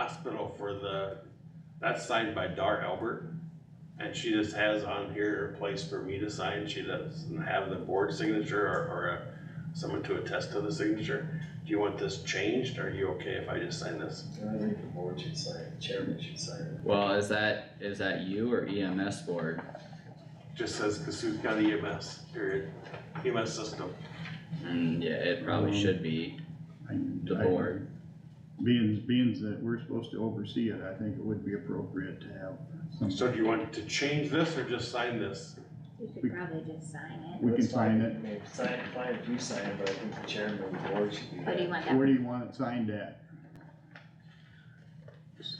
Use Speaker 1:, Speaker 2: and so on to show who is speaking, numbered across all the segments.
Speaker 1: hospital for the, that's signed by Dar Albert. And she just has on here a place for me to sign, she doesn't have the board signature or, or uh, someone to attest to the signature. Do you want this changed, are you okay if I just sign this?
Speaker 2: I think the board should sign, it. chairman should sign it.
Speaker 3: Well, is that, is that you or EMS board?
Speaker 1: Just says Cassuth County EMS, period, EMS system.
Speaker 3: And Mm, yeah, it probably should be the board.
Speaker 4: Being, being that we're supposed to oversee it, I think it would be appropriate to have some.
Speaker 1: So do you want to change this or just sign this?
Speaker 5: You could probably just sign it,
Speaker 4: We can
Speaker 2: That's fine.
Speaker 4: sign it.
Speaker 2: I mean, Sign, fine if you sign it, but I think the chairman of the board should be.
Speaker 5: but do
Speaker 2: there.
Speaker 5: you want
Speaker 4: Where
Speaker 5: that,
Speaker 4: do you want it signed at?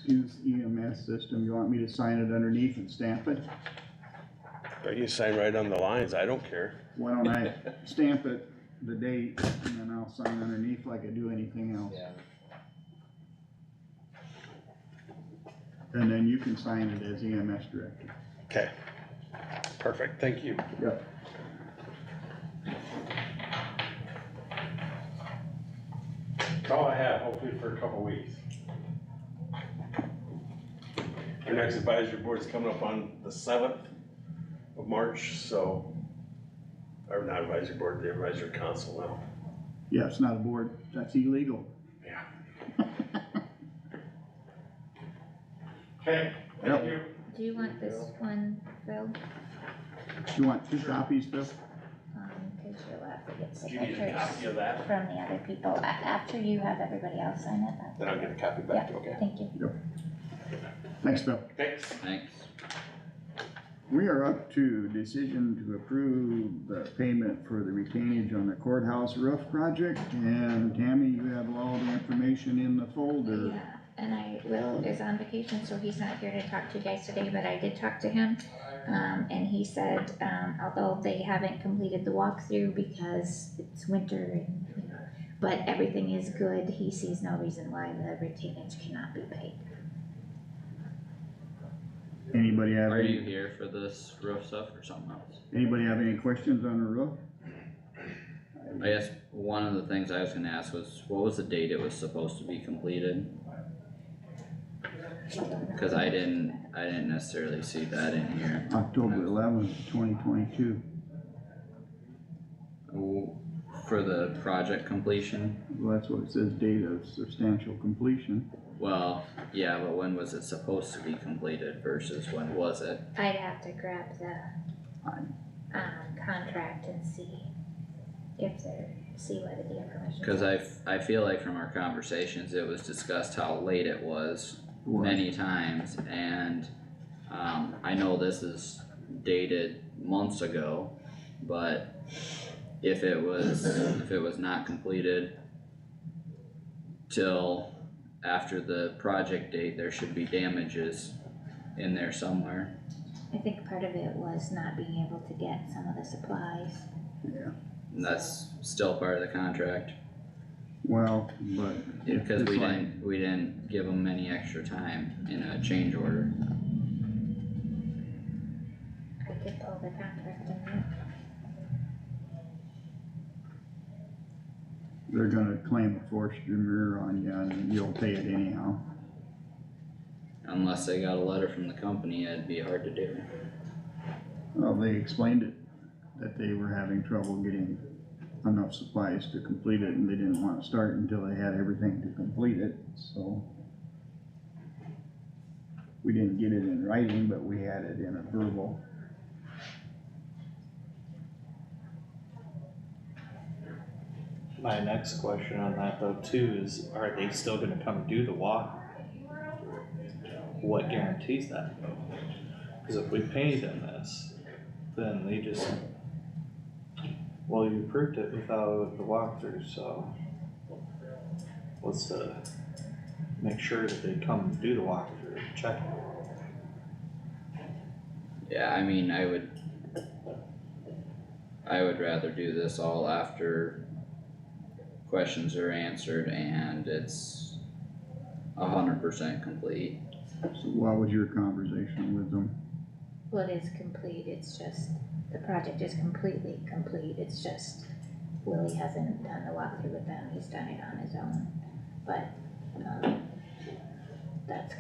Speaker 4: Use EMS system, you want me to sign it underneath and stamp it?
Speaker 1: You sign right on the lines, I don't care.
Speaker 4: Why don't I stamp it, the date, and then I'll sign underneath like I do anything else?
Speaker 2: Yeah,
Speaker 4: And then you can sign it as EMS director.
Speaker 1: Okay. Perfect, thank you.
Speaker 4: Yep.
Speaker 1: That's all I have, hopefully for a couple weeks. Our next advisory board's coming up on the seventh of March, so, or not advisory board, the advisory council now.
Speaker 4: Yeah, it's not a board, that's illegal.
Speaker 1: Yeah. Okay, thank you.
Speaker 5: do you want this one filled,
Speaker 4: You want two copies, Bill?
Speaker 5: um, cause you'll have to get
Speaker 1: Do you need a
Speaker 5: signatures
Speaker 1: copy of that?
Speaker 5: from the other people, a- after you have everybody else sign it, that's.
Speaker 1: Then I'll get a copy back, okay?
Speaker 5: Thank you.
Speaker 4: Thanks, Bill.
Speaker 1: Thanks.
Speaker 3: Thanks.
Speaker 4: We are up to decision to approve the payment for the retainage on the courthouse roof project. And Tammy, you have all the information in the folder.
Speaker 5: Yeah, and I, Will is on vacation, so he's not here to talk to you guys today, but I did talk to him. Um, and he said, um, although they haven't completed the walkthrough because it's winter and, you know, but everything is good, he sees no reason why the retainage cannot be paid.
Speaker 4: Anybody have,
Speaker 3: Are you
Speaker 4: any-
Speaker 3: here for this roof stuff or something else?
Speaker 4: anybody have any questions on the roof?
Speaker 3: I guess one of the things I was gonna ask was, what was the date it was supposed to be completed? Cause I didn't, I didn't necessarily see that in here.
Speaker 4: October eleventh, twenty twenty-two,
Speaker 3: Oh, For the project completion,
Speaker 4: well, that's what it says, date of substantial completion.
Speaker 3: well, yeah, but when was it supposed to be completed versus when was it?
Speaker 5: I'd have to grab the, um, contract and see if they're, see whether the information.
Speaker 3: Cause I, f- I feel like from our conversations, it was discussed how late it was
Speaker 4: Or-
Speaker 3: many times and, um, I know this is dated months ago, but if it was, if it was not completed till after the project date, there should be damages in there somewhere.
Speaker 5: I think part of it was not being able to get some of the supplies.
Speaker 4: Yeah,
Speaker 3: And that's still part of the contract,
Speaker 4: well, but. if
Speaker 3: because
Speaker 4: this
Speaker 3: we
Speaker 4: line-
Speaker 3: didn't, we didn't give them any extra time in a change order.
Speaker 5: I could pull the contract in there.
Speaker 4: They're gonna claim a forced demur on you and you'll pay it anyhow.
Speaker 3: Unless they got a letter from the company, it'd be hard to do.
Speaker 4: Well, they explained it, that they were having trouble getting enough supplies to complete it, and they didn't wanna start until they had everything to complete it, so. We didn't get it in writing, but we had it in a verbal.
Speaker 6: My next question on that though too is, are they still gonna come do the walk? What guarantees that? Cause if we pay them this, then they just. Well, you approved it without the walkthrough, so. What's the, make sure that they come do the walkthrough, check it.
Speaker 3: Yeah, I mean, I would. I would rather do this all after questions are answered and it's a hundred percent complete.
Speaker 4: So what was your conversation with them?
Speaker 5: Well, it is complete, it's just, the project is completely complete, it's just Willie hasn't done the walkthrough with them, he's done it on his own, but, um, that's